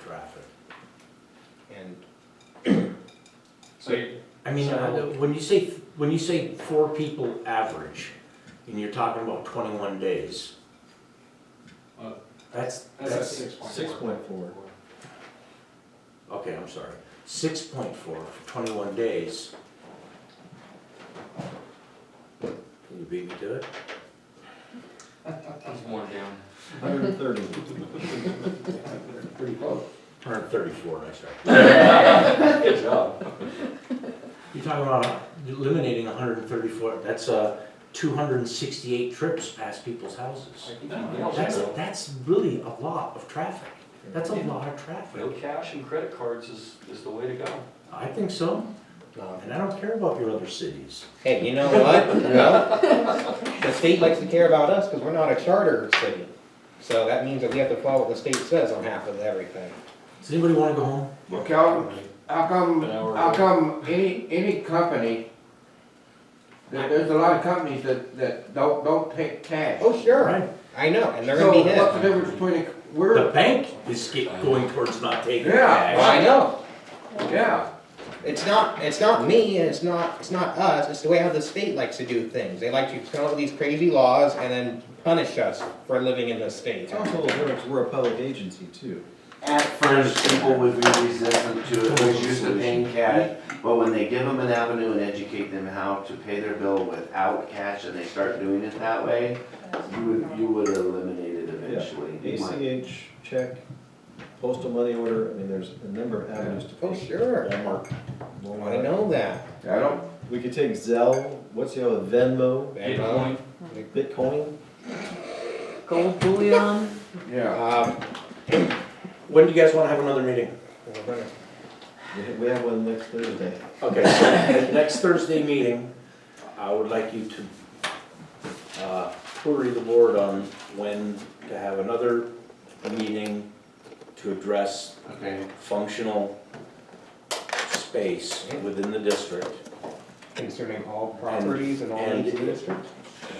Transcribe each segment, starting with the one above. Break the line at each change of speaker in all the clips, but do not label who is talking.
traffic. And
So you,
I mean, uh,
So-
when you say, when you say four people average, and you're talking about twenty-one days.
Uh,
That's,
that's at
that's,
six point
Six
four.
point four.
okay, I'm sorry, six point four for twenty-one days. Can you beat me to it?
He's worn down.
Hundred and thirty.
Pretty close.
Hundred thirty-four, I said.
Good job.
You're talking about uh, eliminating hundred and thirty-four, that's, uh, two hundred and sixty-eight trips past people's houses. That's, that's really a lot of traffic, that's a lot of traffic.
No cash and credit cards is, is the way to go.
I think so, and I don't care about your other cities.
Hey, you know what? Well, the state likes to care about us because we're not a charter city. So that means that we have to follow what the state says on half of everything.
Does anybody wanna go home?
Well, Calvin, how come,
An hour
how
away.
come any, any company, there- there's a lot of companies that, that don't, don't take cash.
Oh, sure,
Right.
I know, and they're
So
gonna be
what's the
hit.
difference between, a-
The
we're,
bank is ge- going towards not taking
Yeah.
Well,
cash.
I know,
yeah,
it's not, it's not me, and it's not, it's not us, it's the way how the state likes to do things. They like to come up with these crazy laws and then punish us for living in this state.
It's also a difference, we're a public agency too.
At first, people would be resistant to it, was used to paying cash, but when they give them an avenue and educate them how to pay their bill without cash and they start doing it that way, you would, you would eliminate it eventually. You might-
ACH, check, postal money order, I mean, there's a number of avenues to.
Oh,
pay.
sure,
Walmart.
I
Walmart.
know that.
I don't,
We could take Zelle, what's the other, Venmo,
Bitcoin,
Bitcoin?
Gold bullion.
yeah.
Um,
When do you guys wanna have another meeting?
we're gonna-
We ha- We have one next Thursday.
Okay, so at next Thursday meeting, I would like you to, uh, query the board on when to have another meeting to address
Okay,
functional space within the district.
Concerning all properties and all
And-
needs of the district?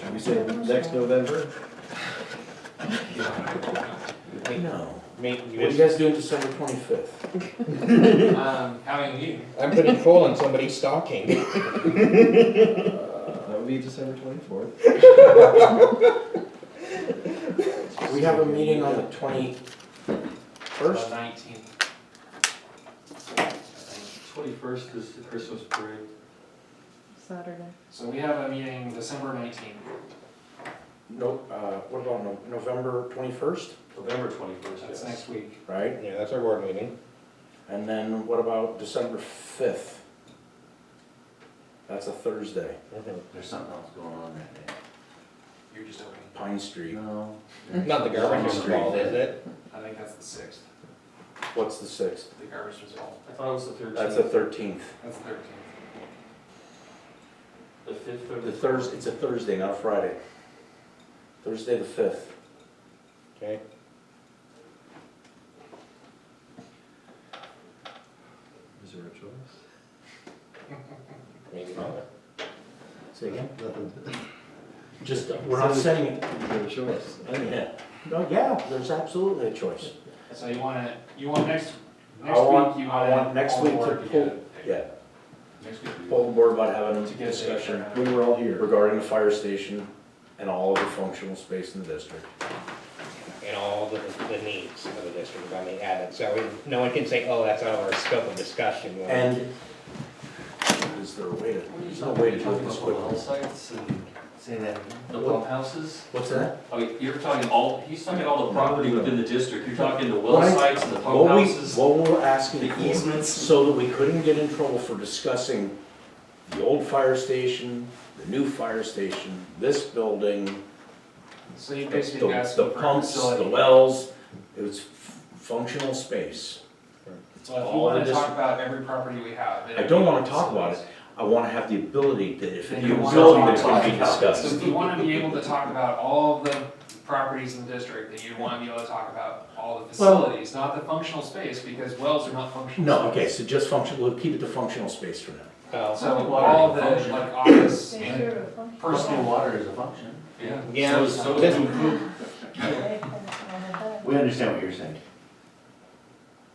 Should we say next November?
No.
Make-
What are you guys doing December twenty-fifth?
Um, having a meeting.
I'm putting coal in somebody's stocking.
Uh, That would be December twenty-fourth.
We have a meeting on the twenty-first?
Nineteenth.
twenty-first is the Christmas parade.
Saturday.
So we have a meeting December nineteenth.
No, uh, what about No- November twenty-first,
November twenty-first,
That's next week.
right?
Yeah, that's our board meeting.
And then what about December fifth? That's a Thursday,
there's something else going on that day.
You're just opening.
Pine Street.
No.
Not the garbage involved, is it?
I think that's the sixth,
What's the sixth?
the garbage disposal. I thought it was the thirteenth.
That's the thirteenth.
That's the thirteenth.
The fifth or
The Thursday, it's a Thursday, not a Friday. Thursday the fifth.
Okay.
Is there a choice?
Maybe not.
Say again?
Nothing.
Just, we're not setting it.
Is there a choice? I don't know.
Yeah. No, Oh, yeah, there's absolutely a choice.
So you wanna, you want next,
I
next
want-
week, you
I
wanna.
want next
all
week to
board
pull-
get it.
Yeah,
Next week. we-
poll the board about having
To
a
get a
discussion
discussion.
When we're all here.
regarding the fire station and all of the functional space in the district.
And all the, the needs of the district, I mean, added, so we- no one can say, oh, that's out of our scope of discussion. Well,
And is there a way to, there's no way to do it this quickly.
Sites and
Say that.
the pump houses.
What's that?
Okay, Oh, you're talking all, he's talking all the property within the district. You're talking the well
Right.
sites and the pump
What we,
houses,
what we're asking
the
for,
easements.
so that we couldn't get in trouble for discussing the old fire station, the new fire station, this building,
So you
the
basically asking
the
for a
pumps, the
facility.
wells, it was f- functional space.
So if you
all
wanna
the
talk
dis-
about every property we have. it
I don't
would be
wanna talk about
facilities.
I want to have the ability to, if
Then
the
you wanna
ability that
talk
can be
about it.
So
discussed.
if you wanna be able to talk about all of the properties in the district, then you wanna be able to talk about all the facilities, not the functional space, because wells are not functional.
No, okay,
space.
so just functional, we'll keep it to functional space for now.
well,
So all the, like, office and
Personal
personal,
water is a function.
yeah.
Yeah,
So, so
this-
to improve
We understand what you're saying.